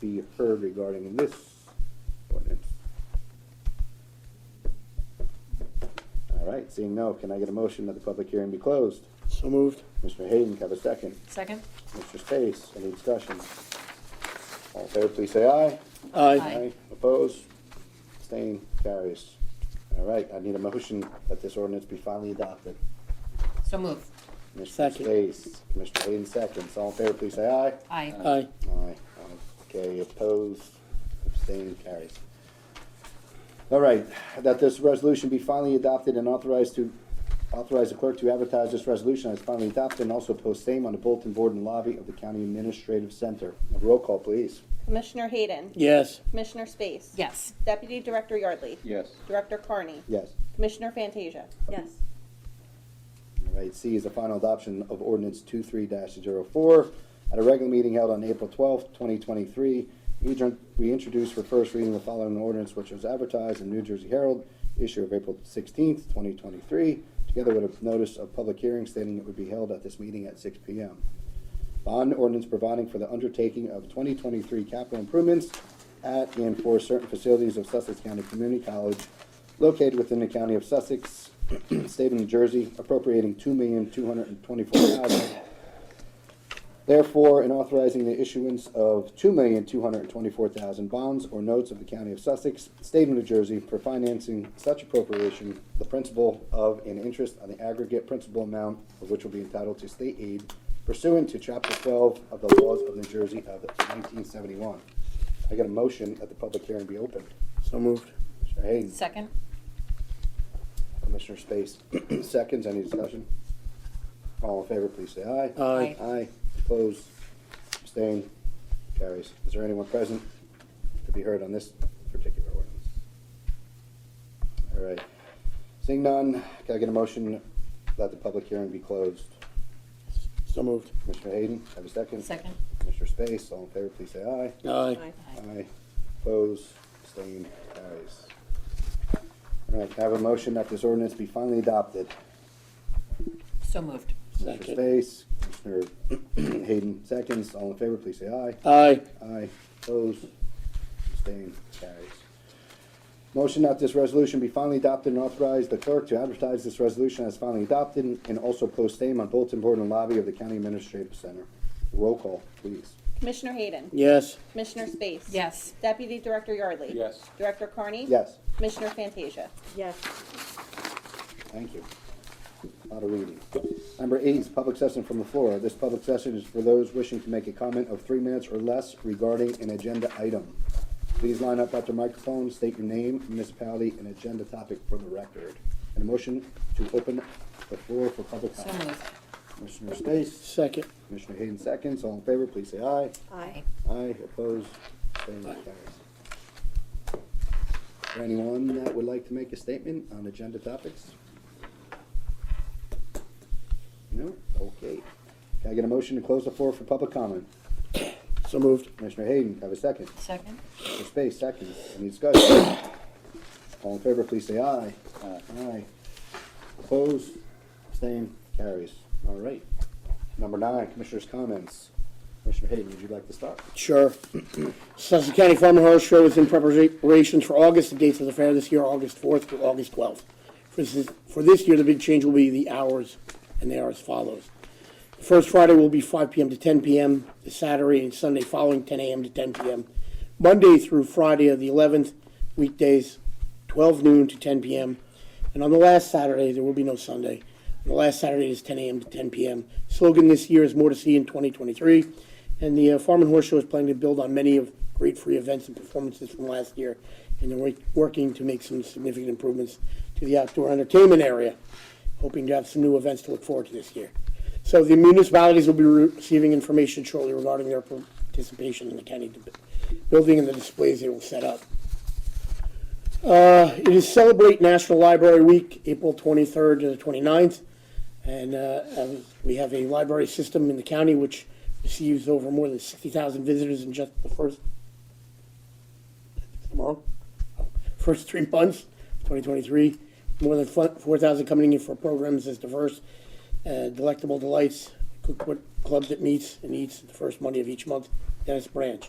be heard regarding this ordinance? All right, seeing no, can I get a motion that the public hearing be closed? So moved. Mr. Hayden, can I have a second? Second? Mr. Space, any discussion? All in favor, please say aye. Aye. Opposed? Abstained? Carries. All right, I need a motion that this ordinance be finally adopted. So move. Mr. Second. Space, Mr. Hayden seconds. All in favor, please say aye. Aye. Aye. Aye. Okay, opposed, abstained, carries. All right, that this resolution be finally adopted and authorized to, authorize the clerk to advertise this resolution as finally adopted and also post same on the bulletin board and lobby of the county administrative center. Roll call, please. Commissioner Hayden. Yes. Commissioner Space. Yes. Deputy Director Yardley. Yes. Director Carney. Yes. Commissioner Fantasia. Yes. All right, C is the final adoption of ordinance two-three dash zero-four at a regular meeting held on April twelfth, twenty twenty-three. We introduced for first reading the following ordinance which was advertised in New Jersey Herald, issue of April sixteenth, twenty twenty-three, together with a notice of public hearing stating it would be held at this meeting at six P M. Bond ordinance providing for the undertaking of twenty twenty-three capital improvements at and for certain facilities of Sussex County Community College located within the county of Sussex, state of New Jersey, appropriating two million two hundred and twenty-four thousand. Therefore, in authorizing the issuance of two million two hundred and twenty-four thousand bonds or notes of the county of Sussex, state of New Jersey, for financing such appropriation, the principal of and interest on the aggregate principal amount of which will be entitled to state aid pursuant to chapter twelve of the laws of New Jersey of nineteen seventy-one. I got a motion that the public hearing be opened. So moved. Commissioner Hayden, Second? Commissioner Space, seconds, any discussion? All in favor, please say aye. Aye. Aye, opposed, abstained, carries. Is there anyone present to be heard on this particular ordinance? All right, seeing none, can I get a motion that the public hearing be closed? So moved. Commissioner Hayden, have a second? Second? Commissioner Space, all in favor, please say aye. Aye. Aye. Opposed, abstained, carries. All right, can I have a motion that this ordinance be finally adopted? So moved. Mr. Second. Space, Commissioner Hayden seconds, all in favor, please say aye. Aye. Aye, opposed, abstained, carries. Motion that this resolution be finally adopted and authorize the clerk to advertise this resolution as finally adopted and also post same on bulletin board and lobby of the county administrative center. Roll call, please. Commissioner Hayden. Yes. Commissioner Space. Yes. Deputy Director Yardley. Yes. Director Carney. Yes, Commissioner Fantasia. Yes. thank you. Lot of reading. Number eight is public session from the floor. This public session is for those wishing to make a comment of three minutes or less regarding an agenda item. Please line up at the microphone, state your name, municipality, and agenda topic for the record. And a motion to open the floor for public So comment. moved. Commissioner Space, Second. Commissioner Hayden seconds. All in favor, please say aye. Aye. Aye, opposed, abstained, carries. Is there anyone that would like to make a statement on agenda topics? No? Okay. Can I get a motion to close the floor for public comment? So moved. Commissioner Hayden, have a second. Second? Mr. Space, second. Any discussion? All in favor, please say aye. Aye. Aye. Opposed, abstained, carries. All right. Number nine, commissioners' comments. Commissioner Hayden, would you like to start? Sure. Sussex County Farm and Horse Show is in preparations for August. The dates of the fair this year, are August 4th through August 12th. For this, for this year, the big change will be the hours, and they are as follows. The First Friday will be 5 p.m. to 10 p.m. The Saturday and Sunday following 10 a.m. to 10 p.m. Monday through Friday of the 11th, weekdays 12 noon to 10 p.m. And on the last Saturday, there will be no Sunday. On the last Saturday is 10 a.m. to 10 p.m. Slogan this year is "More to See in 2023," and the uh, Farm and Horse Show is planning to build on many of great free events and performances from last year, and they're wor- working to make some significant improvements to the outdoor entertainment area hoping to have some new events to look forward to this year. So the municipalities will be receiving information shortly regarding their participation in the county de- building and the displays they will set up. Uh, It is Celebrate National Library Week, April 23rd to the 29th. And uh, as we have a library system in the county which receives over more than 60,000 visitors in just the first, tomorrow? first three months, 2023. More than fu- 4,000 coming in for programs as diverse, uh, delectable delights, cookbook clubs that meets and eats the first Monday of each month, Dennis Branch.